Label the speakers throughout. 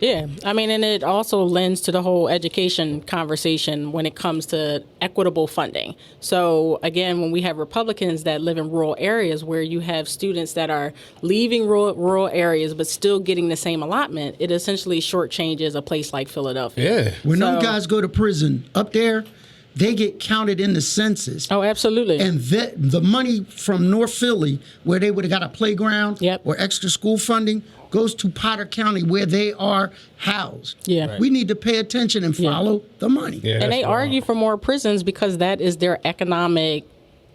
Speaker 1: Yeah, I mean, and it also lends to the whole education conversation when it comes to equitable funding. So, again, when we have Republicans that live in rural areas where you have students that are leaving rural, rural areas but still getting the same allotment, it essentially shortchanges a place like Philadelphia.
Speaker 2: Yeah.
Speaker 3: When
Speaker 1: So-
Speaker 3: those guys go to prison up there, they get counted in the census.
Speaker 1: Oh, absolutely.
Speaker 3: And that, the money from North Philly, where they would have got a playground
Speaker 1: Yep.
Speaker 3: or extra school funding, goes to Potter County where they are housed.
Speaker 1: Yeah. Right.
Speaker 3: We need to pay attention and follow the money.
Speaker 2: Yeah,
Speaker 1: and
Speaker 2: that's
Speaker 1: they
Speaker 2: wild.
Speaker 1: argue for more prisons because that is their economic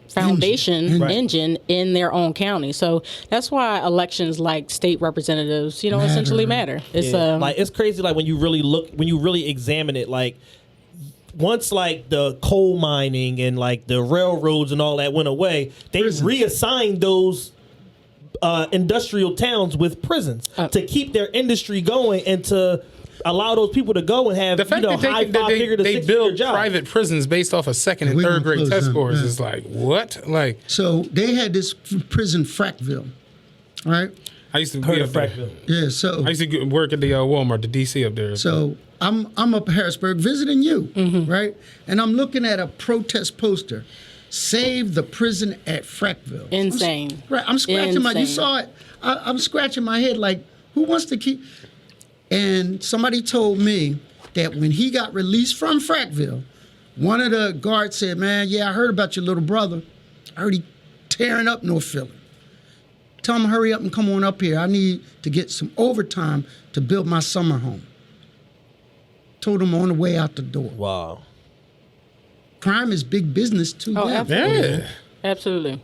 Speaker 1: foundation engine,
Speaker 3: Right.
Speaker 1: in their own county. So that's why elections like state representatives, you know, essentially matter. It's
Speaker 4: Yeah.
Speaker 1: um,
Speaker 4: like it's crazy. Like when you really look, when you really examine it, like once like the coal mining and like the railroads and all that went away, they reassigned those. Uh, industrial towns with prisons to keep their industry going and to allow those people to go and have
Speaker 2: The fact
Speaker 4: you know
Speaker 2: that they,
Speaker 4: high
Speaker 2: can-
Speaker 4: five
Speaker 2: that they,
Speaker 4: figure to
Speaker 2: they
Speaker 4: six figure
Speaker 2: build
Speaker 4: jobs.
Speaker 2: private prisons based off of second and
Speaker 3: We
Speaker 2: third
Speaker 3: gonna
Speaker 2: grade
Speaker 3: close
Speaker 2: test
Speaker 3: them,
Speaker 2: scores
Speaker 3: yeah.
Speaker 2: is like what? Like
Speaker 3: So they had this f- prison, Frackville, right?
Speaker 2: I used to
Speaker 4: Heard
Speaker 2: be
Speaker 4: of
Speaker 2: up there.
Speaker 4: Frackville.
Speaker 3: Yeah, so
Speaker 2: I used to go- work at the uh, Walmart, the DC up there.
Speaker 3: So I'm I'm up in Harrisburg visiting you,
Speaker 1: Mm-hmm.
Speaker 3: right? And I'm looking at a protest poster, "Save the prison at Frackville." I'm s-
Speaker 1: Insane.
Speaker 3: right? I'm scratching my. You
Speaker 1: Insane.
Speaker 3: saw it. I, I'm scratching my head like, who wants to keep? And somebody told me that when he got released from Frackville, one of the guards said, "Man, yeah, I heard about your little brother. I heard he tearing up North Philly." Tell him hurry up and come on up here. I need to get some overtime to build my summer home told him on the way out the door.
Speaker 4: Wow.
Speaker 3: Crime is big business too.
Speaker 1: Oh,
Speaker 3: yeah.
Speaker 1: absolutely.
Speaker 2: yeah.
Speaker 1: absolutely.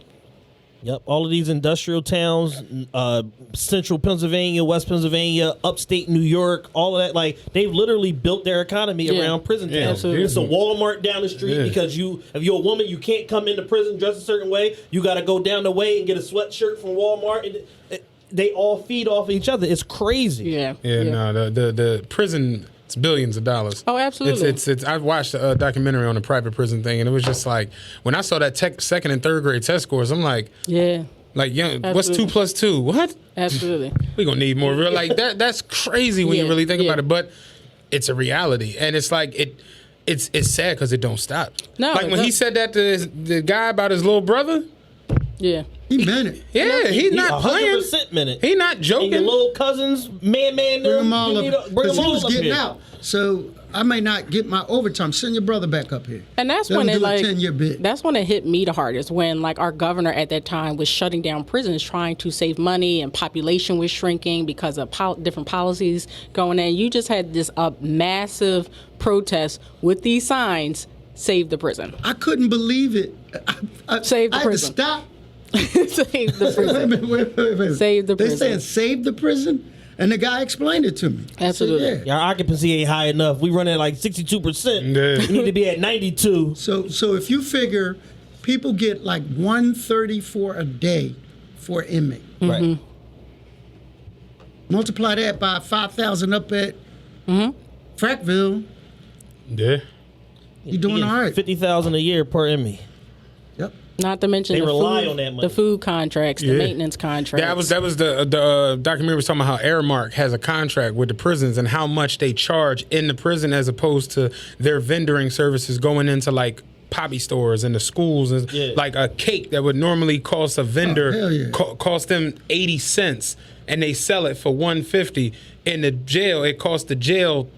Speaker 4: Yep, all of these industrial towns, uh, central Pennsylvania, West Pennsylvania, upstate New York, all of that. Like they've literally built their economy
Speaker 1: Yeah.
Speaker 4: around prison
Speaker 2: Yeah,
Speaker 4: towns.
Speaker 1: absolutely.
Speaker 4: It's a Walmart down the street
Speaker 2: Yeah.
Speaker 4: because you, if you're a woman, you can't come into prison dressed a certain way. You got to go down the way and get a sweatshirt from Walmart, and it, they all feed off each other. It's crazy.
Speaker 1: Yeah.
Speaker 2: Yeah, no, the, the the prison it's billions of dollars.
Speaker 1: Oh, absolutely.
Speaker 2: It's it's, it's I watched a uh, documentary on the private prison thing, and it was just like when I saw that tech, second and third grade test scores, I'm like,
Speaker 1: Yeah.
Speaker 2: like, yeah, what's two
Speaker 1: Absolutely.
Speaker 2: plus two? What?
Speaker 1: Absolutely.
Speaker 2: We gonna need more real like that. That's crazy when you
Speaker 1: Yeah,
Speaker 2: really think
Speaker 1: yeah.
Speaker 2: about it, but it's a reality, and it's like it. It's it's sad because it don't stop.
Speaker 1: No,
Speaker 2: like
Speaker 1: it
Speaker 2: when he
Speaker 1: don't.
Speaker 2: said that to his, the guy about his little brother.
Speaker 1: Yeah.
Speaker 3: He meant it.
Speaker 2: Yeah, he's not playing.
Speaker 4: 100% minute.
Speaker 2: He not
Speaker 4: and your
Speaker 2: joking.
Speaker 4: little cousins, man, man,
Speaker 3: Bring
Speaker 4: them,
Speaker 3: them all
Speaker 4: you
Speaker 3: up
Speaker 4: need to- bring
Speaker 3: because
Speaker 4: them
Speaker 3: he
Speaker 4: all
Speaker 3: was
Speaker 4: up
Speaker 3: getting
Speaker 4: here.
Speaker 3: out. So I may not get my overtime. Send your brother back up here.
Speaker 1: And that's
Speaker 3: Let
Speaker 1: when
Speaker 3: him
Speaker 1: it
Speaker 3: do
Speaker 1: like
Speaker 3: a ten year bid.
Speaker 1: that's when it hit me the hardest when like our governor at that time was shutting down prisons trying to save money and population was shrinking because of pol- different policies going in. You just had this uh, massive protest with these signs save the prison.
Speaker 3: I couldn't believe it. I, I,
Speaker 1: Save the
Speaker 3: I had to
Speaker 1: prison.
Speaker 3: stop.
Speaker 1: save the
Speaker 3: Wait a
Speaker 1: prison.
Speaker 3: minute, wait, wait, wait.
Speaker 1: Save the
Speaker 3: they
Speaker 1: prison.
Speaker 3: saying save the prison, and the guy explained it to me. I said,
Speaker 1: Absolutely.
Speaker 3: yeah.
Speaker 4: Our occupancy ain't high enough. We run at like 62%.
Speaker 2: Yeah.
Speaker 4: We need to be at 92.
Speaker 3: So so if you figure people get like one thirty for a day for inmate.
Speaker 4: Right.
Speaker 3: Multiply that by five thousand up at Frackville.
Speaker 2: Yeah.
Speaker 3: You're doing all right.
Speaker 4: Fifty thousand a year per E. Emmy.
Speaker 3: Yep.
Speaker 1: Not to mention
Speaker 4: They
Speaker 1: the
Speaker 4: rely
Speaker 1: food,
Speaker 4: on that money.
Speaker 1: the food contracts, the
Speaker 2: Yeah.
Speaker 1: maintenance contracts.
Speaker 2: That was that was the the uh, documentary was talking about how Airmark has a contract with the prisons and how much they charge in the prison as opposed to their vendoring services going into like poppy stores and the schools and
Speaker 4: Yeah.
Speaker 2: like a cake that would normally cost a vendor
Speaker 3: hell yeah.
Speaker 2: co- cost them 80 cents and they sell it for 150 in the jail it costs the jail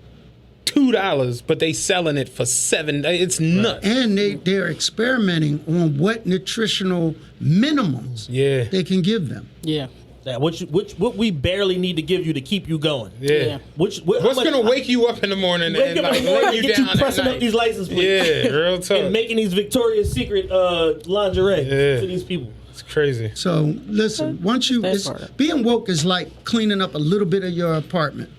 Speaker 2: two dollars but they selling it for seven it's nuts
Speaker 3: And they, they're experimenting on what nutritional minimums
Speaker 2: Yeah.
Speaker 3: they can give them.
Speaker 1: yeah.
Speaker 4: That which which what we barely need to give you to keep you going.
Speaker 2: yeah,
Speaker 1: Yeah.
Speaker 4: Which what,
Speaker 2: What's gonna wake you up in the morning
Speaker 4: Wake
Speaker 2: and
Speaker 4: up
Speaker 2: like,
Speaker 4: in the morning
Speaker 2: lay you
Speaker 4: and get
Speaker 2: down
Speaker 4: you
Speaker 2: at
Speaker 4: pressing up
Speaker 2: night?
Speaker 4: these license plates.
Speaker 2: Yeah, real tough.
Speaker 4: and making these Victoria's Secret uh, lingerie
Speaker 2: Yeah.
Speaker 4: for these people.
Speaker 2: It's crazy.
Speaker 3: So listen, once you
Speaker 1: That's
Speaker 3: it's,
Speaker 1: harder.
Speaker 3: being woke is like cleaning up a little bit of your apartment.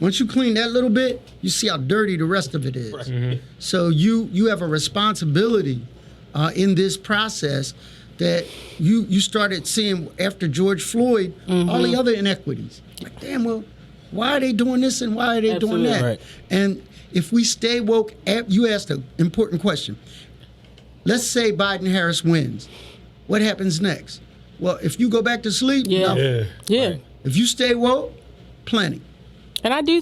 Speaker 3: Once you clean that little bit, you see how dirty the rest of it is. So you you have a responsibility uh, in this process that you you started seeing after George Floyd all the other inequities. Like damn, well, why are they doing this and why are they
Speaker 1: Absolutely.
Speaker 3: doing that?
Speaker 4: Right.
Speaker 3: And if we stay woke, ab- you asked an important question. Let's say Biden Harris wins. What happens next? Well, if you go back to sleep,
Speaker 1: Yeah.
Speaker 3: no.
Speaker 2: Yeah.
Speaker 1: Yeah.
Speaker 3: If you stay woke, plenty.
Speaker 1: And I do